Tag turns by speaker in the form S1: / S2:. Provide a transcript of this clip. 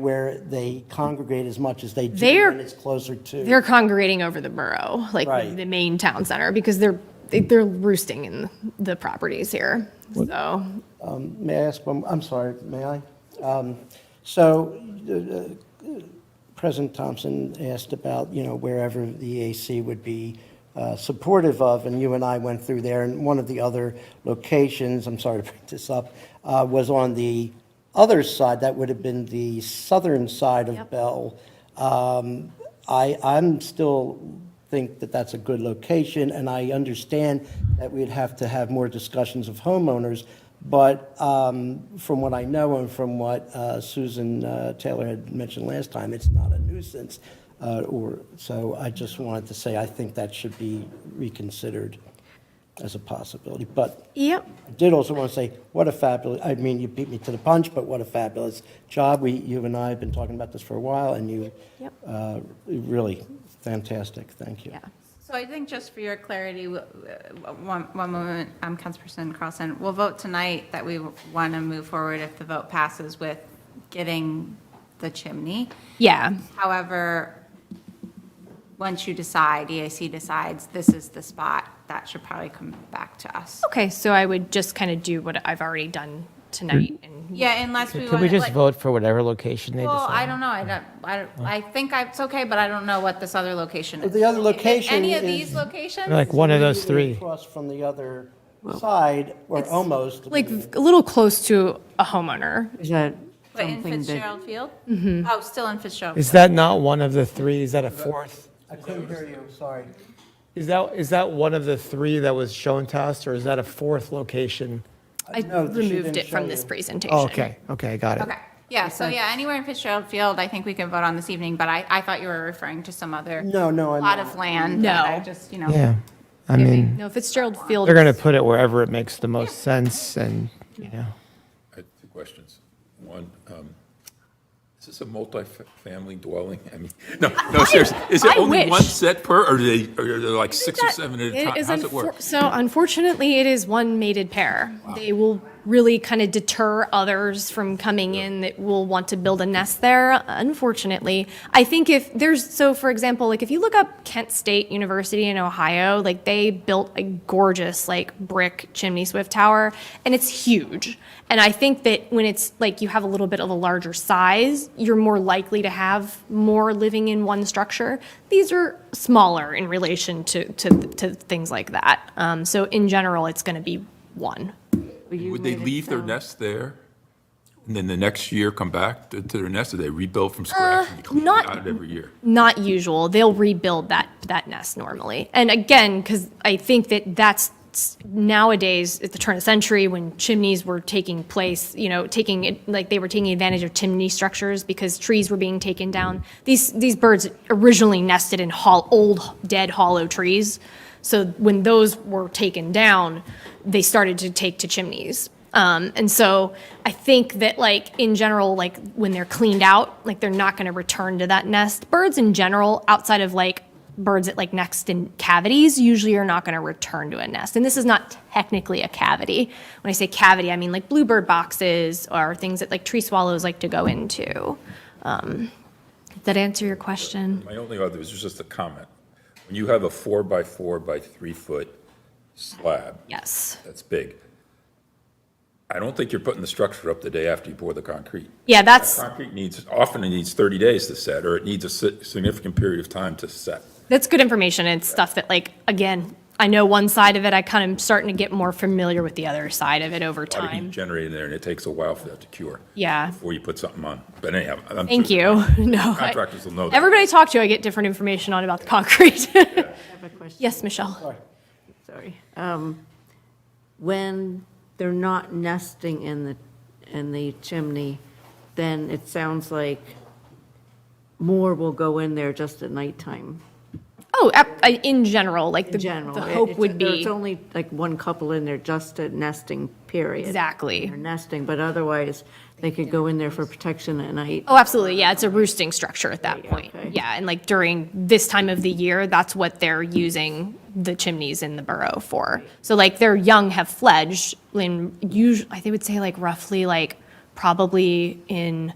S1: where they congregate as much as they do
S2: They're-
S1: when it's closer to.
S2: They're congregating over the borough, like
S1: Right.
S2: the main town center, because they're, they- they're roosting in the properties here. So,
S1: May I ask one, I'm sorry, may I? Um, So uh, uh, President Thompson asked about, you know, wherever the EAC would be uh, supportive of, and you and I went through there, and one of the other locations, I'm sorry to bring this up, uh, was on the other side, that would have been the southern side of
S2: Yep.
S1: Bell. Um, I, I'm still think that that's a good location, and I understand that we'd have to have more discussions of homeowners, but um, from what I know and from what uh, Susan uh, Taylor had mentioned last time, it's not a nuisance. uh, Or, so I just wanted to say, I think that should be reconsidered as a possibility. But
S2: yep,
S1: I did also want to say, what a fabulous, I mean, you beat me to the punch, but what a fabulous job. We, you and I have been talking about this for a while, and you,
S2: Yep.
S1: uh, really fantastic, thank you.
S2: yeah.
S3: So I think just for your clarity, w- w- one, one moment, um, Councilperson Carlson, we'll vote tonight that we want to move forward if the vote passes with getting the chimney.
S2: Yeah,
S3: However, once you decide, EAC decides, this is the spot, that should probably come back to us.
S2: okay, so I would just kind of do what I've already done tonight and,
S3: Yeah, unless we want.
S4: Could we just
S3: like-
S4: vote for whatever location they
S3: Well, I
S4: decide?
S3: don't know, I don't, I, don't- I think I- it's okay, but I don't know what this other location is.
S1: The other
S3: If
S1: location
S3: Any of
S1: is-
S3: these locations?
S4: Like one of those three.
S1: Across from the other side, or almost.
S2: like, a little close to a homeowner.
S5: Is that
S3: But in
S5: something that,
S3: Fitzgerald Field? Mm-hmm. Oh, still in Fitzgerald.
S4: Is that not one of the three? Is that a fourth?
S1: I couldn't hear you, sorry.
S4: Is that, is that one of the three that was shown to us, or is that a fourth location?
S2: I
S1: No, she didn't
S2: removed it
S1: show
S2: from this
S1: you.
S2: presentation.
S4: Oh, okay, okay, got it.
S3: Okay, yeah, so yeah, anywhere in Fitzgerald Field, I think we can vote on this evening, but I, I thought you were referring to some other
S1: No, no, I'm
S3: lot
S1: not.
S3: of
S2: No.
S3: land. that I just, you know.
S4: Yeah, I mean,
S2: No, Fitzgerald Field.
S4: they're going to put it wherever it makes the most sense and, you know.
S6: I have two questions. One, um, is this a multifamily dwelling? I mean, no, no, seriously. Is
S2: I
S6: it only
S2: wish.
S6: one set per, or do they, or are there like six or seven at a
S2: It
S6: time?
S2: is
S6: How's it work?
S2: unfor- So unfortunately, it is one mated pair. They will really kind of deter others from coming in that will want to build a nest there, unfortunately. I think if there's, so for example, like if you look up Kent State University in Ohio, like they built a gorgeous like brick chimney swift tower and it's huge. And I think that when it's like you have a little bit of a larger size, you're more likely to have more living in one structure. These are smaller in relation to, to, to things like that. Um, so in general, it's going to be one.
S6: Would they leave their nest there? And then the next year come back to to their nest, or they rebuild from scratch? and you clean it
S2: Uh, not-
S6: Out every year?
S2: Not usual. They'll rebuild that, that nest normally. And again, because I think that that's nowadays at the turn of the century when chimneys were taking place, you know, taking it like they were taking advantage of chimney structures because trees were being taken down. These, these birds originally nested in hol- old, dead, hollow trees. So when those were taken down, they started to take to chimneys. Um, and so I think that like in general, like when they're cleaned out, like they're not going to return to that nest. Birds in general, outside of like birds that like nest in cavities, usually are not going to return to a nest. And this is not technically a cavity. When I say cavity, I mean like bluebird boxes or things that like tree swallows like to go into. Um, did that answer your question?
S6: My only other is just a comment. When you have a four by four by three foot slab,
S2: Yes.
S6: that's big. I don't think you're putting the structure up the day after you pour the concrete.
S2: Yeah, that's
S6: Concrete needs, often it needs 30 days to set, or it needs a si- significant period of time to set.
S2: That's good information. It's stuff that, like, again, I know one side of it. I kind of starting to get more familiar with the other side of it over
S6: A lot of heat
S2: time.
S6: generated there, and it takes a while for that to cure.
S2: Yeah.
S6: Before you put something on. But anyhow. I'm
S2: Thank
S6: sure-
S2: you. No. I-
S6: Contractors will know that.
S2: Everybody I talk to, I get different information on about the concrete.
S5: I have a question,
S2: yes, Michelle.
S5: sorry. Um, When they're not nesting in the, in the chimney, then it sounds like more will go in there just at nighttime.
S2: Oh, ap- I- in general, like the,
S5: In general.
S2: the
S5: It-
S2: hope
S5: it's-
S2: would
S5: There's
S2: be
S5: only like one couple in there just at nesting, period.
S2: exactly.
S5: They're nesting, but otherwise, they could go in there for protection at night.
S2: Oh, absolutely. Yeah, it's a roosting structure at that point.
S5: okay.
S2: Yeah, and like during this time of the year, that's what they're using the chimneys in the burrow for. So like their young have fledged in usually, I think would say like roughly like probably in